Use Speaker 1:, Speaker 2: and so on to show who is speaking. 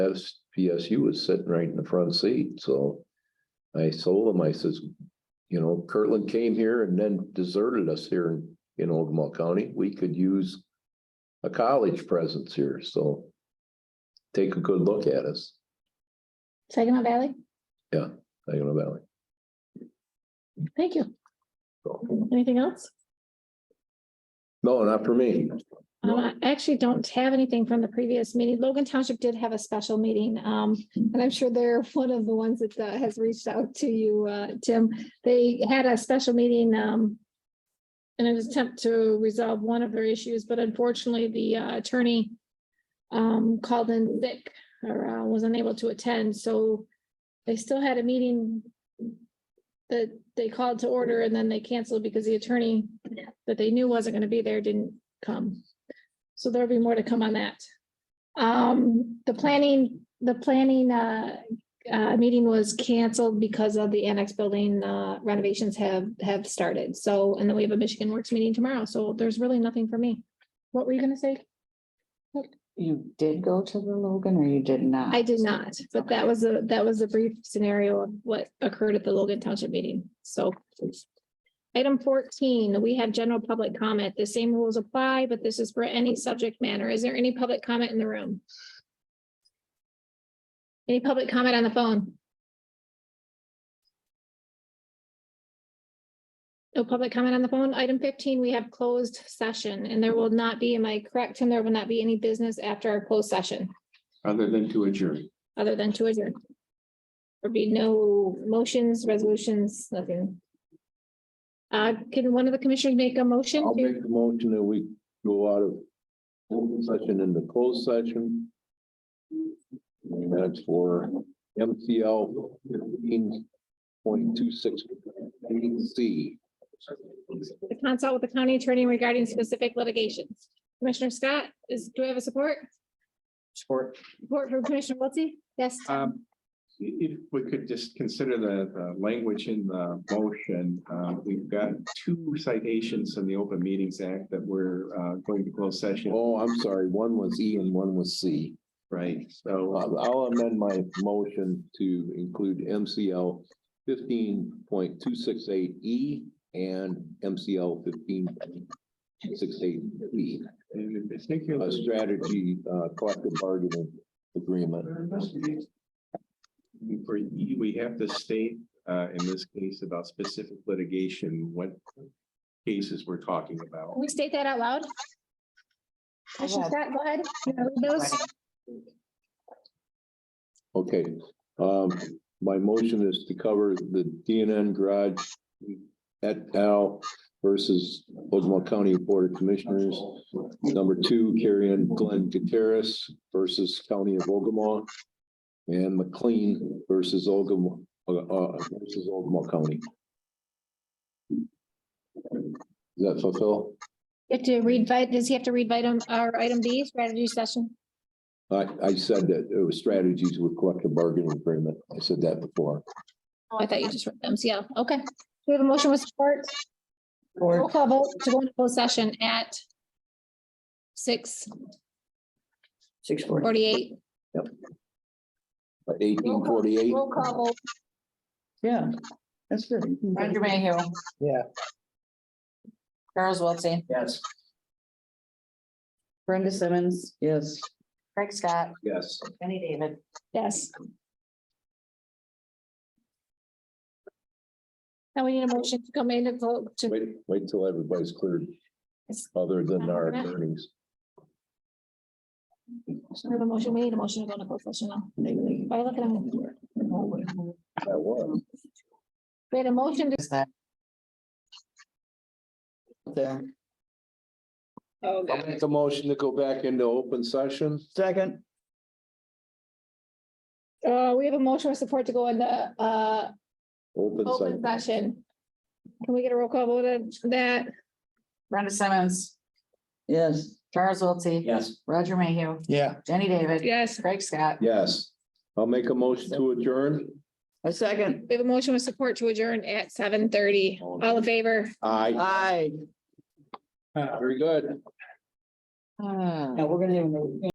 Speaker 1: S P S U was sitting right in the front seat, so. I told him, I says, you know, Kirtland came here and then deserted us here in, in Ogama County, we could use. A college presence here, so. Take a good look at us,
Speaker 2: Saginaw Valley,
Speaker 1: Saginaw Valley.
Speaker 2: thank you.
Speaker 1: So,
Speaker 2: Anything else?
Speaker 1: No, not for me.
Speaker 2: Um, I actually don't have anything from the previous meeting. Logan Township did have a special meeting, um, and I'm sure they're one of the ones that uh, has reached out to you, uh, Tim. They had a special meeting, um, in an attempt to resolve one of their issues, but unfortunately, the uh, attorney um, called in sick or uh, was unable to attend, so they still had a meeting that they called to order and then they canceled because the attorney that they knew wasn't gonna be there didn't come. So there'll be more to come on that. Um, the planning, the planning, uh, uh, meeting was canceled because of the annex building, uh, renovations have, have started. So, and then we have a Michigan Works meeting tomorrow, so there's really nothing for me. What were you gonna say?
Speaker 3: You did go to the Logan or you did not?
Speaker 2: I did not, but that was a, that was a brief scenario of what occurred at the Logan Township meeting, so. Item fourteen, we have general public comment. The same rules apply, but this is for any subject matter. Is there any public comment in the room? Any public comment on the phone? No public comment on the phone. Item fifteen, we have closed session and there will not be, am I correct, Tim? There will not be any business after our closed session
Speaker 4: Other than to adjourn.
Speaker 2: other than to adjourn. There'd be no motions, resolutions, nothing. Uh, can one of the commissioners make a motion?
Speaker 1: I'll
Speaker 2: to-
Speaker 1: make the motion that we go out of open session into closed session. And that's for MCL fifteen point two six C.
Speaker 2: To consult with the county attorney regarding specific litigations. Commissioner Scott, is, do we have a support?
Speaker 4: Support.
Speaker 2: Support from Commissioner Wiltie? Yes,
Speaker 4: Um, i- if we could just consider the, the language in the motion, uh, we've got two citations in the Open Meetings Act that we're, uh, going to close session,
Speaker 1: Oh, I'm sorry, one was E and one was C.
Speaker 4: right? So,
Speaker 1: I'll I'll amend my motion to include MCL fifteen point two six eight E and MCL fifteen six eight E.
Speaker 4: and in
Speaker 1: a
Speaker 4: particular,
Speaker 1: strategy, uh, collective bargaining agreement.
Speaker 4: for E, we have to state, uh, in this case about specific litigation, what cases we're talking about.
Speaker 2: can we state that out loud? Commissioner Scott, go ahead. You wanna read those?
Speaker 1: Okay, um, my motion is to cover the DNN garage et al. versus Ogama County Board of Commissioners. Number two, Carrie Ann Glenn Gutierrez versus County of Ogama. And McLean versus Ogama, uh, uh, versus Ogama County. Does that fulfill?
Speaker 2: You have to read, vi- does he have to read item, or item B, strategy session?
Speaker 1: I, I said that it was strategies with collective bargaining agreement. I said that before.
Speaker 2: Oh, I thought you just read the MCL. Okay. Do we have a motion with support? Roll
Speaker 3: Or
Speaker 2: call vote to go into closed session at six
Speaker 3: six forty.
Speaker 2: forty-eight.
Speaker 1: Eighteen forty-eight.
Speaker 2: Roll call vote.
Speaker 5: Yeah, that's good.
Speaker 3: Roger Mayhew.
Speaker 5: Yeah.
Speaker 3: Charles Wiltie,
Speaker 5: Yes.
Speaker 3: Brenda Simmons,
Speaker 5: Yes.
Speaker 3: Craig Scott,
Speaker 1: Yes.
Speaker 3: Jenny David.
Speaker 2: Yes. Now we need a motion to come in and vote to,
Speaker 1: Wait, wait till everybody's cleared, other than our attorneys.
Speaker 2: we have a motion, we need a motion to go into closed session now. Why are you looking at me?
Speaker 1: That was.
Speaker 2: We had a motion to.
Speaker 3: Is that?
Speaker 5: There.
Speaker 2: Oh,
Speaker 1: I'll make a motion to go back into open session.
Speaker 5: Second,
Speaker 2: Uh, we have a motion with support to go in the, uh,
Speaker 1: Open
Speaker 2: open
Speaker 1: session.
Speaker 2: session. Can we get a roll call vote on that?
Speaker 3: Brenda Simmons,
Speaker 5: yes.
Speaker 3: Charles Wiltie.
Speaker 5: Yes.
Speaker 3: Roger Mayhew,
Speaker 5: Yeah.
Speaker 3: Jenny David,
Speaker 2: Yes.
Speaker 3: Craig Scott.
Speaker 1: Yes. I'll make a motion to adjourn.
Speaker 5: A second,
Speaker 2: We have a motion with support to adjourn at seven thirty. All in favor?
Speaker 1: Aye,
Speaker 5: aye.
Speaker 1: very good.
Speaker 3: Ah.
Speaker 5: Now, we're gonna have another.